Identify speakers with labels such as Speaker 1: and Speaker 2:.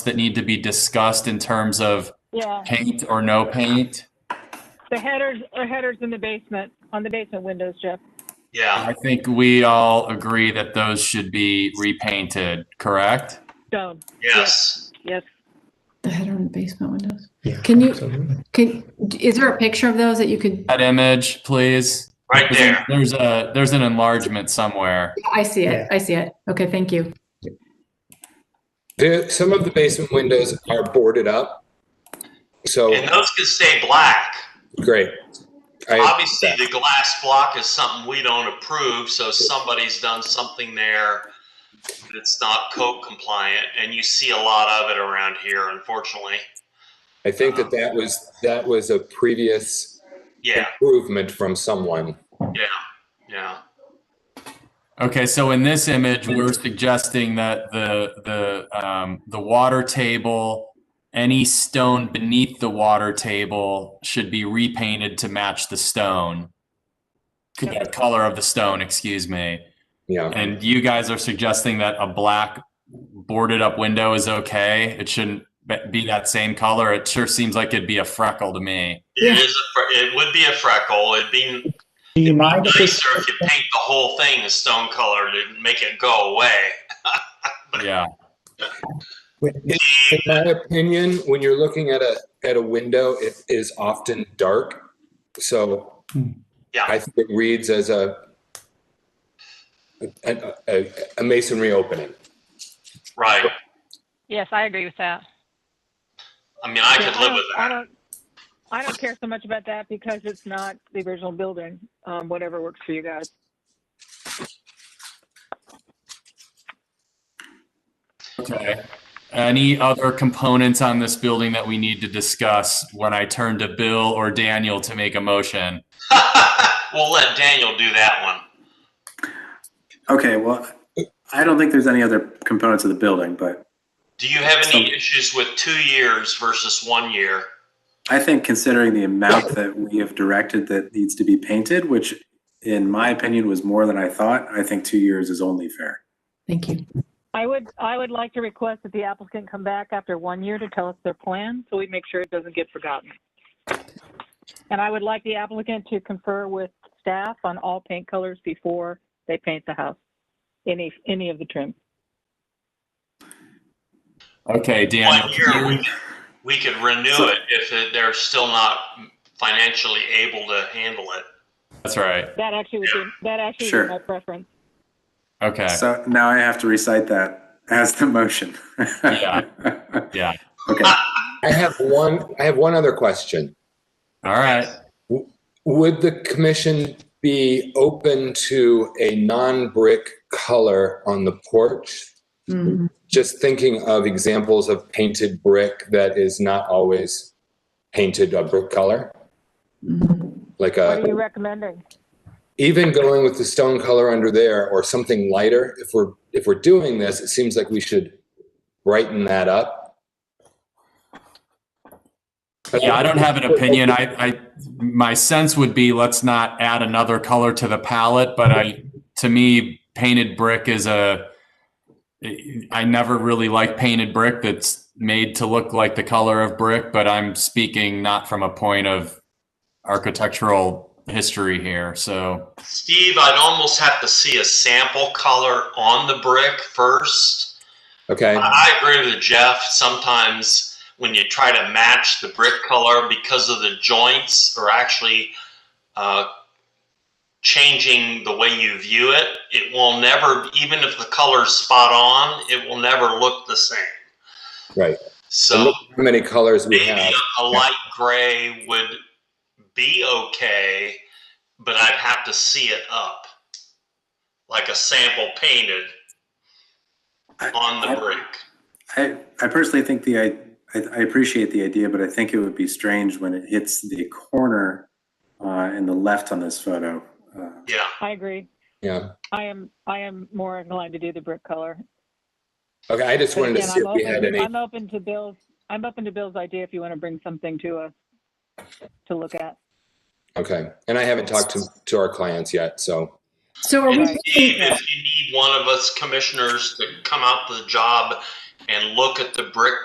Speaker 1: that need to be discussed in terms of
Speaker 2: Yeah,
Speaker 1: paint or no paint.
Speaker 2: the headers, the headers in the basement, on the basement windows, Jeff.
Speaker 3: Yeah,
Speaker 1: I think we all agree that those should be repainted, correct?
Speaker 2: Stone,
Speaker 3: yes.
Speaker 2: yes.
Speaker 4: The header in the basement windows.
Speaker 5: Yeah.
Speaker 4: Can you-
Speaker 5: absolutely.
Speaker 4: Can, is there a picture of those that you could,
Speaker 1: That image, please.
Speaker 3: Right there.
Speaker 1: There's a, there's an enlargement somewhere.
Speaker 4: I see
Speaker 5: Yeah.
Speaker 4: it, I see it. Okay, thank you.
Speaker 6: There, some of the basement windows are boarded up. So
Speaker 3: And those can stay black.
Speaker 6: great. I-
Speaker 3: Obviously, the glass block is something we don't approve, so somebody's done something there that's not code compliant, and you see a lot of it around here, unfortunately.
Speaker 6: I think that that was that was a previous
Speaker 3: Yeah,
Speaker 6: improvement from someone.
Speaker 3: yeah, yeah.
Speaker 1: Okay, so in this image, we're suggesting that the, the, um, the water table, any stone beneath the water table should be repainted to match the stone. The color of the stone, excuse me.
Speaker 6: Yeah.
Speaker 1: And you guys are suggesting that a black boarded up window is okay? It shouldn't be- be that same color. It sure seems like it'd be a freckle to me.
Speaker 3: It is, a fre- it would be a freckle. It'd be
Speaker 5: Do you mind if
Speaker 3: nicer
Speaker 5: we-
Speaker 3: if you paint the whole thing a stone color to make it go away.
Speaker 1: Yeah.
Speaker 6: In in my opinion, when you're looking at a at a window, it is often dark. So
Speaker 3: Yeah.
Speaker 6: I think it reads as a a, a, a masonry opening.
Speaker 3: Right.
Speaker 2: Yes, I agree with that.
Speaker 3: I mean, I could live with
Speaker 2: I
Speaker 3: that.
Speaker 2: don't, I don't care so much about that because it's not the original building, um, whatever works for you guys.
Speaker 1: Okay. Any other components on this building that we need to discuss when I turn to Bill or Daniel to make a motion?
Speaker 3: we'll let Daniel do that one.
Speaker 7: Okay, well, I don't think there's any other components of the building, but
Speaker 3: Do you have any
Speaker 7: Some-
Speaker 3: issues with two years versus one year?
Speaker 7: I think considering the amount that we have directed that needs to be painted, which in my opinion was more than I thought, I think two years is only fair.
Speaker 4: Thank you.
Speaker 2: I would, I would like to request that the applicant come back after one year to tell us their plan, so we make sure it doesn't get forgotten. And I would like the applicant to confer with staff on all paint colors before they paint the house, any, any of the trim.
Speaker 1: Okay, Daniel.
Speaker 3: One year,
Speaker 1: can
Speaker 3: we,
Speaker 1: you-
Speaker 3: we could renew
Speaker 7: So-
Speaker 3: it if it- they're still not financially able to handle it.
Speaker 1: That's right.
Speaker 2: That actually would be, that actually would
Speaker 7: Sure.
Speaker 2: be my preference.
Speaker 1: Okay.
Speaker 7: So now I have to recite that as the motion.
Speaker 1: Yeah. Yeah.
Speaker 7: Okay,
Speaker 6: I have one I have one other question.
Speaker 1: All right.
Speaker 6: Would the commission be open to a non-brick color on the porch?
Speaker 4: Mhm.
Speaker 6: Just thinking of examples of painted brick that is not always painted a brick color,
Speaker 4: Mhm.
Speaker 6: like
Speaker 2: What are
Speaker 6: a,
Speaker 2: you recommending?
Speaker 6: even going with the stone color under there or something lighter. If we're, if we're doing this, it seems like we should brighten that up.
Speaker 1: Yeah, I don't have an opinion. I, I, my sense would be let's not add another color to the palette, but I, to me, painted brick is a, I never really like painted brick that's made to look like the color of brick, but I'm speaking not from a point of architectural history here, so.
Speaker 3: Steve, I'd almost have to see a sample color on the brick first.
Speaker 6: Okay,
Speaker 3: I I agree with Jeff. Sometimes when you try to match the brick color because of the joints or actually uh, changing the way you view it, it will never, even if the color's spot on, it will never look the same.
Speaker 6: right. And
Speaker 3: So
Speaker 6: look How many colors we
Speaker 3: maybe
Speaker 6: have.
Speaker 3: a, a light gray would be okay, but I'd have to see it up like a sample painted on
Speaker 7: I-
Speaker 3: the brick.
Speaker 7: I, I personally think the, I, I appreciate the idea, but I think it would be strange when it hits the corner uh, in the left on this photo. Uh,
Speaker 3: Yeah.
Speaker 2: I agree.
Speaker 6: Yeah.
Speaker 2: I am, I am more inclined to do the brick color.
Speaker 6: Okay, I just
Speaker 2: But
Speaker 6: wanted to
Speaker 2: again,
Speaker 6: see if
Speaker 2: I'm
Speaker 6: we
Speaker 2: open-
Speaker 6: had any.
Speaker 2: I'm open to Bill's, I'm open to Bill's idea if you want to bring something to us to look at.
Speaker 6: Okay, and I haven't talked to, to our clients yet, so,
Speaker 4: So are
Speaker 3: And
Speaker 4: we,
Speaker 2: Right.
Speaker 3: Steve, if you need one of us commissioners to come out to the job and look at the brick